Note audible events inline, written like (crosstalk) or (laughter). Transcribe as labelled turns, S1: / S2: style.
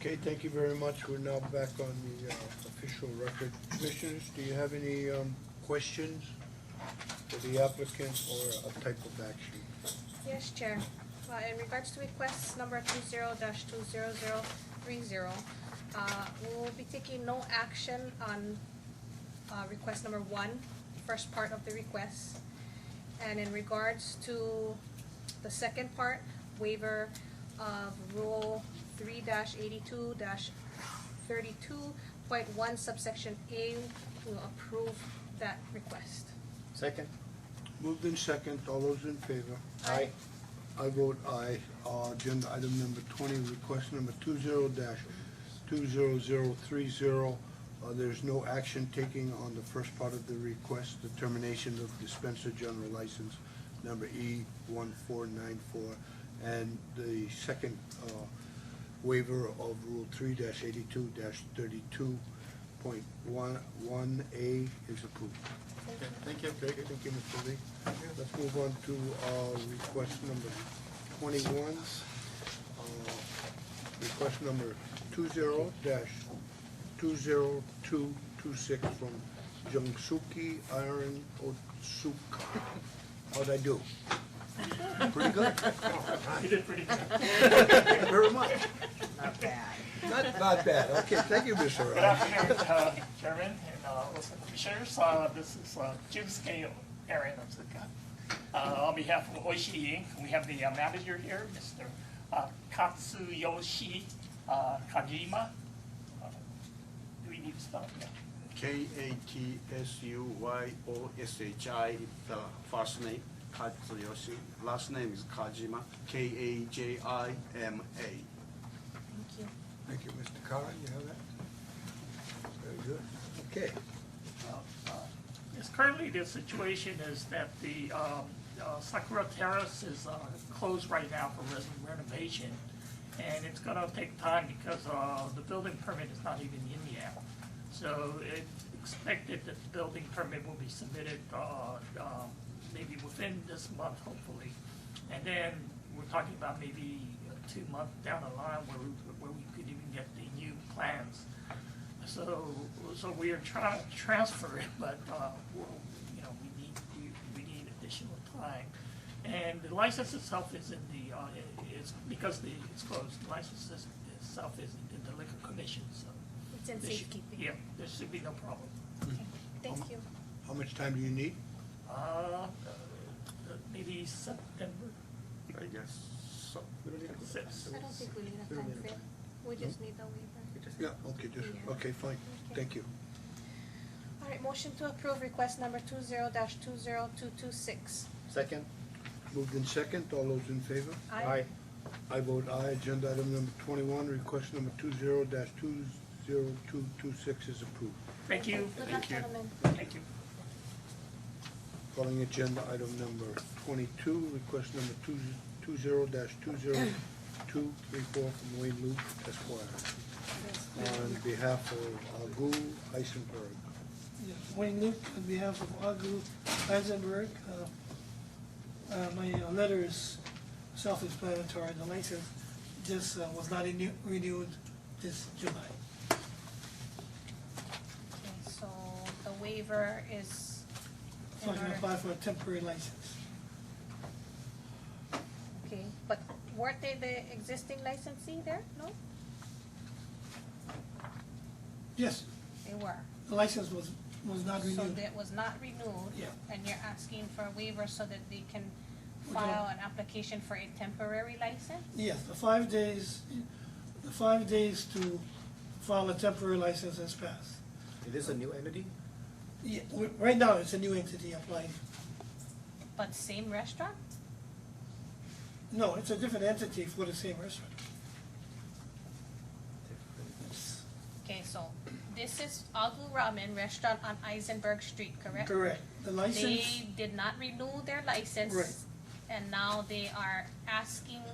S1: Okay, thank you very much. We're now back on the uh, official record. Commissioners, do you have any um, questions for the applicant or a type of action?
S2: Yes, Chair. Uh, in regards to request number two zero dash two zero zero three zero, uh, we'll be taking no action on, uh, request number one, first part of the request. And in regards to the second part, waiver of rule three dash eighty-two dash thirty-two point one subsection A, we'll approve that request.
S3: Second?
S1: Moved in second, all those in favor?
S3: Aye.
S1: I vote aye. Uh, Agenda item number twenty, request number two zero dash two zero zero three zero. Uh, There's no action taking on the first part of the request, determination of dispenser general license number E one four nine four. And the second uh, waiver of Rule three dash eighty-two dash thirty-two point one, one A is approved.
S3: Okay, Thank you.
S1: Okay, thank you, Mr. Lee. Let's move on to uh, request number twenty-one. Uh, Request number two zero dash two zero two two six from Jungsuki Iron Otsuk. How'd I do? Pretty good?
S4: (laughs) You did pretty good.
S1: Thank you very much.
S4: Not bad.
S1: Not, not bad. Okay, thank you, Mr.
S4: Good
S1: Aaron.
S4: afternoon, uh, Chairman and uh, also Commissioners. Uh, This is uh, Jim Scale, Aaron of Zuka. Uh, On behalf of Oishi Inc., we have the uh, manager here, Mr. uh, Katsuyoshi uh, Kajima. Uh, Do we need to spell it? Yeah.
S5: K A T S U Y O S H I, the first name, Katsuyoshi. Last name is Kajima, K A J I M A.
S2: Thank you.
S1: Thank you, Mr. Kara. You have that? Very good. Okay.
S4: Yes, currently the situation is that the um, uh, Sakura Terrace is uh, closed right now for res- renovation. And it's gonna take time because uh, the building permit is not even in yet. So it's expected that the building permit will be submitted uh, um, maybe within this month, hopefully. And then we're talking about maybe uh, two months down the line where we, where we could even get the new plans. So, so we are trying to transfer (laughs) it, but, uh, we'll- you know, we need, we, we need additional time. And the license itself is in the, uh, it- it's, because the, it's closed, the license is- itself is in the liquor commission, so.
S2: It's in
S4: there should-
S2: safekeeping.
S4: Yeah, there should be no problem.
S2: Okay, thank you.
S1: How much time do you need?
S4: Uh, uh, maybe September,
S5: I guess so.
S4: sixth.
S2: I don't think we need a time frame, we just need the waiver.
S1: Yeah, okay, just,
S2: Yeah.
S1: okay, fine.
S2: Okay.
S1: Thank you.
S2: All right, motion to approve request number two zero dash two zero two two six.
S3: Second?
S1: Moved in second, all those in favor? I vote aye. Agenda item number twenty-one, request number two zero dash two zero two two six is approved.
S4: Thank you,
S2: Good luck,
S5: Thank you.
S2: gentlemen.
S4: thank you.
S1: Calling agenda item number twenty-two, request number two, two zero dash two zero two three four from Wayne Luke Esquire on behalf of Agu Eisenberg.
S6: Yes, Wayne Luke, on behalf of Agu Eisenberg, uh, uh, my uh, letter is self-explanatory, the license just uh, was not renew- renewed this July.
S2: Okay, so the waiver is in
S6: So I can
S2: order.
S6: apply for a temporary license.
S2: Okay, but weren't they the existing licensee there? No?
S6: Yes,
S2: They were.
S6: the license was, was not
S2: So
S6: renewed.
S2: that was not renewed.
S6: Yeah.
S2: And you're asking for a waiver so that they can
S6: We don't-
S2: file an application for a temporary license?
S6: Yes, the five days, the five days to file a temporary license has passed.
S3: It is a new entity?
S6: Yeah, we- right now, it's a new entity applying.
S2: But same restaurant?
S6: No, it's a different entity for the same restaurant.
S2: Okay, so this is Agu Ramen Restaurant on Eisenberg Street, correct?
S6: Correct. The license.
S2: They did not renew their license.
S6: Right.
S2: And now they are asking